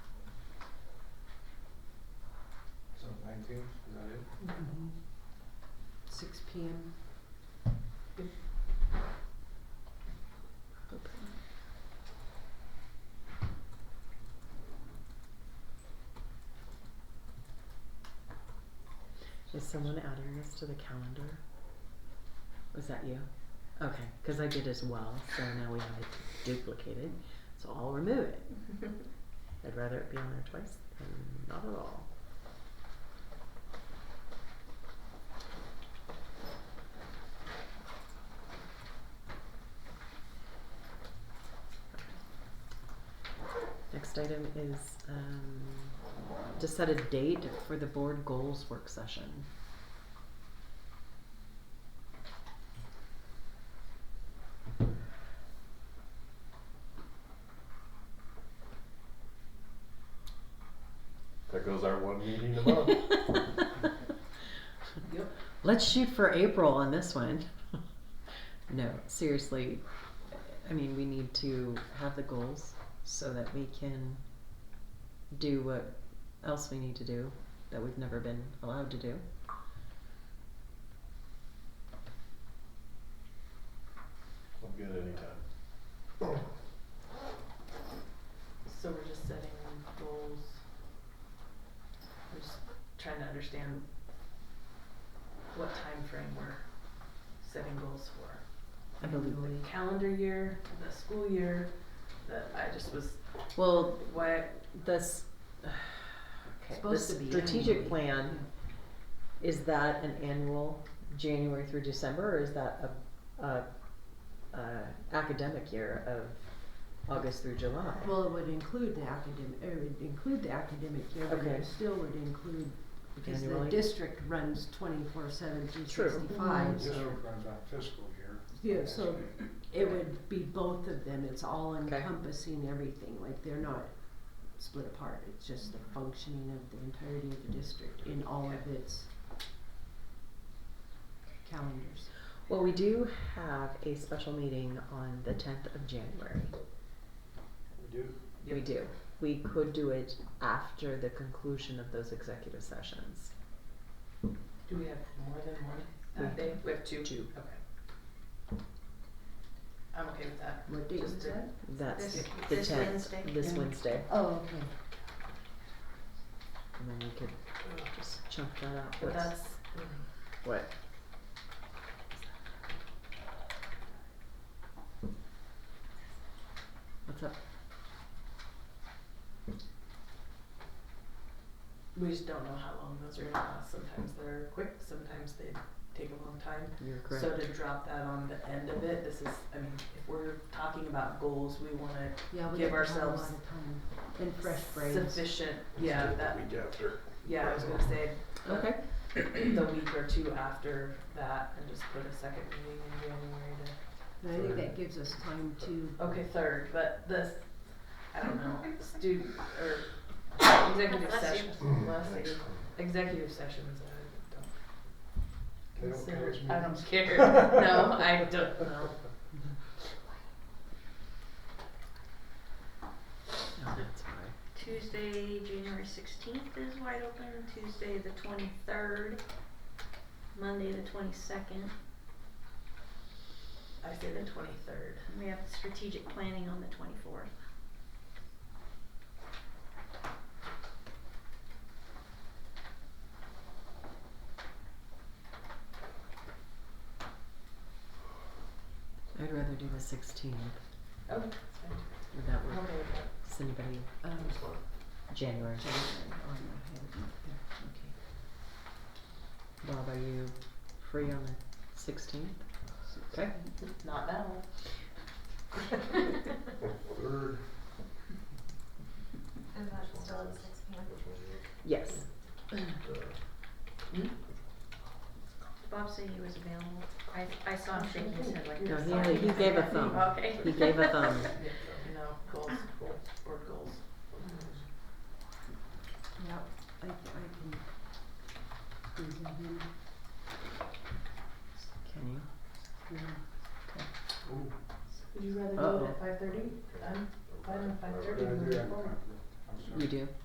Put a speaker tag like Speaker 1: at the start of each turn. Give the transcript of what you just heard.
Speaker 1: Sixteenth, is that it?
Speaker 2: Mm-hmm.
Speaker 3: Six P M. Is someone adding this to the calendar? Was that you? Okay, because I did as well, so now we have it duplicated, so I'll remove it. I'd rather it be on there twice than not at all. Next item is um, to set a date for the board goals work session.
Speaker 1: There goes our one meeting a month.
Speaker 4: Yep.
Speaker 3: Let's shoot for April on this one. no, seriously. I mean, we need to have the goals so that we can do what else we need to do that we've never been allowed to do.
Speaker 1: I'm good anytime.
Speaker 4: So we're just setting goals. We're just trying to understand what time frame we're setting goals for.
Speaker 3: I believe we.
Speaker 4: The calendar year, the school year, the, I just was,
Speaker 3: Well,
Speaker 4: why,
Speaker 3: this. Okay,
Speaker 2: Supposed
Speaker 3: this
Speaker 2: to be
Speaker 3: strategic
Speaker 2: annually.
Speaker 3: plan is that an annual January through December, or is that a, a, a academic year of August through July?
Speaker 2: Well, it would include the academic, it would include the academic year, but
Speaker 3: Okay.
Speaker 2: it still would include, because the
Speaker 3: Annually?
Speaker 2: district runs twenty-four seven three
Speaker 3: True. Mm-hmm.
Speaker 2: sixty-five.
Speaker 5: This would run about fiscal year.
Speaker 2: Yeah, so it would be both of them, it's all
Speaker 3: Okay.
Speaker 2: encompassing everything, like they're not split apart, it's just the functioning of the entirety of the district in all of its calendars.
Speaker 3: Well, we do have a special meeting on the tenth of January.
Speaker 5: We do.
Speaker 3: We do. We could do it after the conclusion of those executive sessions.
Speaker 4: do we have more than one
Speaker 3: We-
Speaker 4: that day? We have two?
Speaker 3: two.
Speaker 4: Okay. I'm okay with that.
Speaker 2: What date
Speaker 4: Just
Speaker 2: is
Speaker 4: to-
Speaker 2: that?
Speaker 3: That's
Speaker 4: This-
Speaker 3: the
Speaker 6: this
Speaker 3: tenth,
Speaker 6: Wednesday?
Speaker 3: this
Speaker 2: Yeah.
Speaker 3: Wednesday,
Speaker 2: Oh, okay.
Speaker 3: and then we could just chunk that out.
Speaker 4: But
Speaker 3: What's-
Speaker 4: that's,
Speaker 3: What? What's up?
Speaker 4: we just don't know how long those are gonna last. Sometimes they're quick, sometimes they take a long time.
Speaker 3: You're
Speaker 4: So to drop that on the end of it, this is, I mean, if we're talking about goals, we wanna
Speaker 2: Yeah, we
Speaker 4: Give
Speaker 2: have a lot
Speaker 4: ourselves
Speaker 2: of time and fresh brains.
Speaker 4: sufficient, yeah, that,
Speaker 1: Week after.
Speaker 4: yeah, I was gonna say
Speaker 3: Okay.
Speaker 4: the week or two after that and just put a second meeting in January to,
Speaker 2: And I think that gives us time to
Speaker 4: okay, third, but this, I don't know, student or executive
Speaker 6: Bless you.
Speaker 4: session,
Speaker 2: Mm.
Speaker 4: last year, executive sessions, I don't
Speaker 5: They don't
Speaker 4: consider-
Speaker 5: close
Speaker 4: I
Speaker 5: meetings.
Speaker 4: don't care, no, I don't know.
Speaker 3: Oh, that's fine.
Speaker 6: Tuesday, January sixteenth is wide open, Tuesday the twenty-third, Monday the twenty-second.
Speaker 4: I say the twenty-third.
Speaker 6: We have strategic planning on the twenty-fourth.
Speaker 3: I'd rather do the sixteenth.
Speaker 4: Oh, that's fine.
Speaker 3: Would that
Speaker 4: I'm
Speaker 3: work?
Speaker 4: okay with that.
Speaker 3: Does anybody?
Speaker 2: um
Speaker 3: January.
Speaker 2: January. Oh, no, I have it up there. Okay.
Speaker 3: Bob, are you free on the sixteenth? Okay.
Speaker 4: Not now.
Speaker 1: Third.
Speaker 7: Is that still at six P M?
Speaker 3: Yes.
Speaker 6: Bob said he was available. I, I saw him shaking his head like
Speaker 3: No,
Speaker 6: this.
Speaker 3: he only- he gave a thumb.
Speaker 6: Okay.
Speaker 3: He gave a thumb.
Speaker 4: No, goals,
Speaker 6: Ah.
Speaker 4: goals, board goals.
Speaker 2: Yep, I, I can. do that in,
Speaker 3: Can you?
Speaker 2: yeah.
Speaker 5: Ooh,
Speaker 4: Would you rather
Speaker 3: do it
Speaker 4: do it
Speaker 3: at
Speaker 4: at five thirty? I'm fine with five
Speaker 5: what did I do?
Speaker 4: thirty.
Speaker 5: I'm- I'm sorry.
Speaker 3: You do?